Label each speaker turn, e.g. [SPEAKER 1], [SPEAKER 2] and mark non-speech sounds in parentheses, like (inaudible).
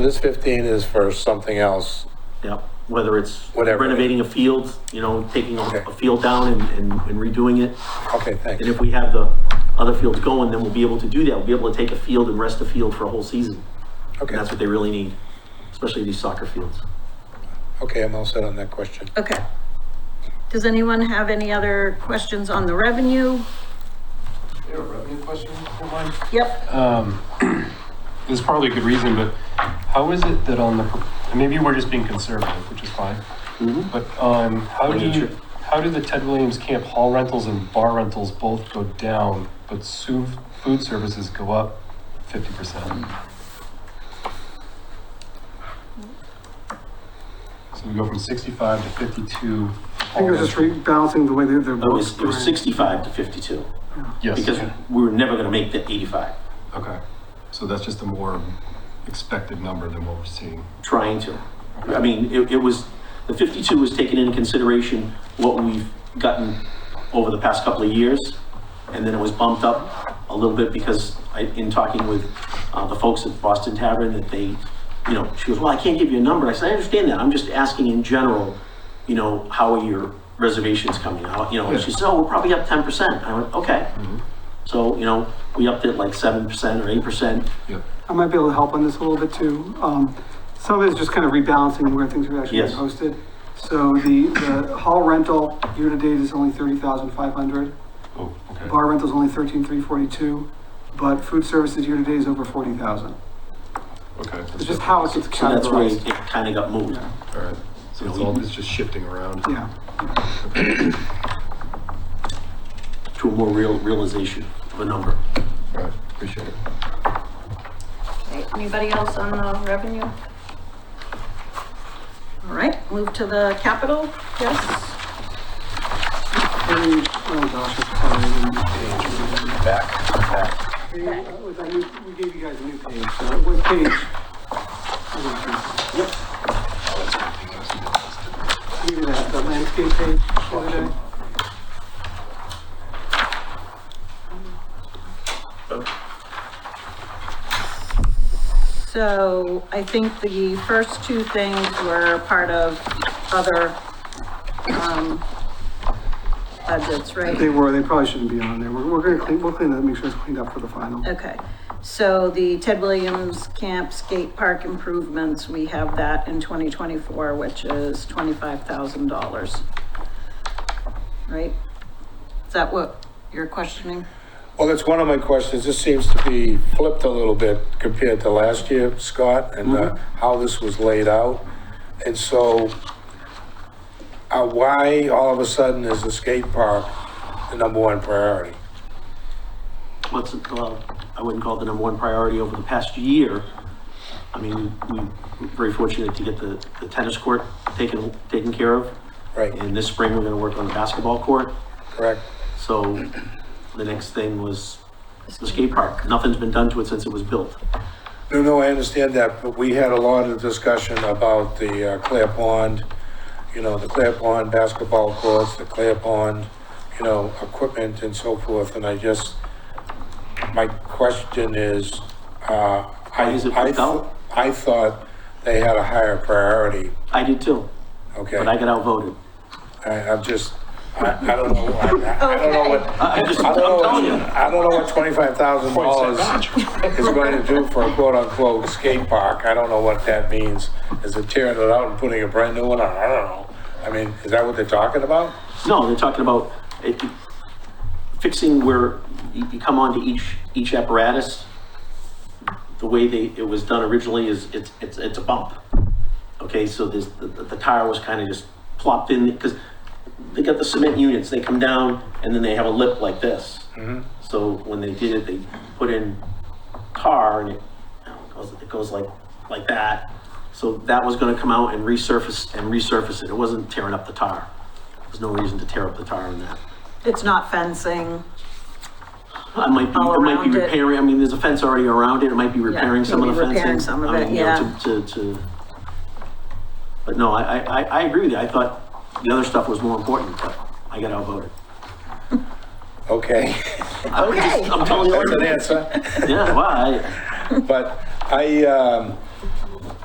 [SPEAKER 1] this 15 is for something else.
[SPEAKER 2] Yep, whether it's
[SPEAKER 1] Whatever.
[SPEAKER 2] renovating a field, you know, taking a
[SPEAKER 1] Okay.
[SPEAKER 2] a field down and- and and redoing it.
[SPEAKER 1] Okay, thanks.
[SPEAKER 2] And if we have the other fields going, then we'll be able to do that. We'll be able to take a field and rest a field for a whole season.
[SPEAKER 1] Okay,
[SPEAKER 2] And that's what they really need, especially these soccer fields.
[SPEAKER 1] okay, I'm all set on that question.
[SPEAKER 3] Okay. Does anyone have any other questions on the revenue?
[SPEAKER 4] Yeah, revenue question for mine.
[SPEAKER 3] Yep,
[SPEAKER 4] Um, There's probably a good reason, but how is it that on the, and maybe we're just being conservative, which is fine.
[SPEAKER 1] Mm-hmm.
[SPEAKER 4] But, um, how
[SPEAKER 2] By
[SPEAKER 4] do you,
[SPEAKER 2] nature.
[SPEAKER 4] how do the Ted Williams Camp hall rentals and bar rentals both go down, but su- food services go up fifty percent? So we go from sixty-five to fifty-two.
[SPEAKER 5] I think it was just rebalancing the way they're, they're
[SPEAKER 2] It was, it
[SPEAKER 5] working.
[SPEAKER 2] was 65 to 52,
[SPEAKER 4] Yes.
[SPEAKER 2] because we were never going to make the 85,
[SPEAKER 4] Okay, so that's just a more expected number than what we're seeing.
[SPEAKER 2] trying to. I mean, it, it was, the 52 was taken into consideration what we've gotten over the past couple of years, and then it was bumped up a little bit because I, in talking with uh, the folks at Boston Tavern, that they, you know, she goes, well, I can't give you a number. I said, I understand that. I'm just asking in general, you know, how are your reservations coming out? You know, and she said, oh, we're probably up 10%. I went, okay. So, you know, we upped it like 7% or 8%.
[SPEAKER 4] Yep.
[SPEAKER 5] I might be able to help on this a little bit too. Um, some of it is just kind of rebalancing where things are actually
[SPEAKER 2] Yes.
[SPEAKER 5] being posted. So the, the hall rental year-to-date is only thirty thousand five hundred.
[SPEAKER 4] Oh, okay.
[SPEAKER 5] Bar rental's only thirteen three forty-two, but food services year-to-date is over forty thousand.
[SPEAKER 4] Okay.
[SPEAKER 5] It's
[SPEAKER 4] that's
[SPEAKER 5] just
[SPEAKER 4] it.
[SPEAKER 5] how it gets
[SPEAKER 2] So that's where it
[SPEAKER 5] categorized.
[SPEAKER 2] kind of got moved.
[SPEAKER 5] Yeah.
[SPEAKER 4] All right. So it's all, it's just shifting around.
[SPEAKER 5] Yeah,
[SPEAKER 2] to a more real realization of a number.
[SPEAKER 4] All right, appreciate it.
[SPEAKER 3] Okay, anybody else on the revenue? All right, move to the capital, yes?
[SPEAKER 5] And, oh gosh, it's probably. Back, We gave you guys a new page, so what page? Yep. Give you that, the landscape page the other day.
[SPEAKER 3] So I think the first two things were part of other, um, budgets, right?
[SPEAKER 5] They were, they probably shouldn't be on there. We're, we're gonna clean, we'll clean that, make sure it's cleaned up for the final.
[SPEAKER 3] Okay, so the Ted Williams Camp Skate Park improvements, we have that in twenty twenty-four, which is twenty-five thousand dollars. Right? Is that what you're questioning?
[SPEAKER 1] Well, that's one of my questions. This seems to be flipped a little bit compared to last year, Scott, and uh, how this was laid out. And so, uh, why all of a sudden is the skate park the number one priority?
[SPEAKER 2] What's, uh, I wouldn't call it the number one priority over the past year. I mean, we- we're very fortunate to get the the tennis court taken, taken care of.
[SPEAKER 1] Right.
[SPEAKER 2] And this spring, we're gonna work on the basketball court.
[SPEAKER 1] Correct?
[SPEAKER 2] So the next thing was the skate park. Nothing's been done to it since it was built.
[SPEAKER 1] No, no, I understand that, but we had a lot of discussion about the uh, Clear Pond, you know, the Clear Pond basketball courts, the Clear Pond, you know, equipment and so forth, and I just, my question is, uh, I,
[SPEAKER 2] Why is it
[SPEAKER 1] I,
[SPEAKER 2] left out?
[SPEAKER 1] th- I thought they had a higher priority,
[SPEAKER 2] I did too,
[SPEAKER 1] okay?
[SPEAKER 2] but I got outvoted.
[SPEAKER 1] I, I'm just, I, I don't know, I, I I don't know what,
[SPEAKER 2] I I just,
[SPEAKER 1] I
[SPEAKER 2] I'm
[SPEAKER 1] don't know,
[SPEAKER 2] telling you.
[SPEAKER 1] what- I don't know what twenty-five thousand dollars is going to do for a quote-unquote skate park. I don't know what that means. Is it tearing it out and putting a brand new one on? I don't know. I mean, is that what they're talking about?
[SPEAKER 2] No, they're talking about it- fixing where you you come onto each, each apparatus. The way they, it was done originally is, it's, it's, it's a bump. Okay, so this, the, the tire was kind of just plopped in, because they got the cement units, they come down and then they have a lip like this. So when they did it, they put in tar and it, you know, it goes, it goes like, like that. So that was gonna come out and resurface, and resurface it, it wasn't tearing up the tar. There's no reason to tear up the tar in that.
[SPEAKER 3] It's not fencing.
[SPEAKER 2] I might be,
[SPEAKER 3] All
[SPEAKER 2] it might be
[SPEAKER 3] around it.
[SPEAKER 2] repairing, I mean, there's a fence already around it, it might be repairing some of
[SPEAKER 3] maybe
[SPEAKER 2] the fencing.
[SPEAKER 3] repairing some of
[SPEAKER 2] I
[SPEAKER 3] it,
[SPEAKER 2] mean, you know,
[SPEAKER 3] yeah.
[SPEAKER 2] To, to, to, but no, I, I, I- I agree with you, I thought the other stuff was more important, but I got outvoted.
[SPEAKER 1] Okay, (laughs)
[SPEAKER 2] I was just- I'm telling
[SPEAKER 1] that's an
[SPEAKER 2] you,
[SPEAKER 1] answer.
[SPEAKER 2] yeah, well, I,
[SPEAKER 1] But I, um,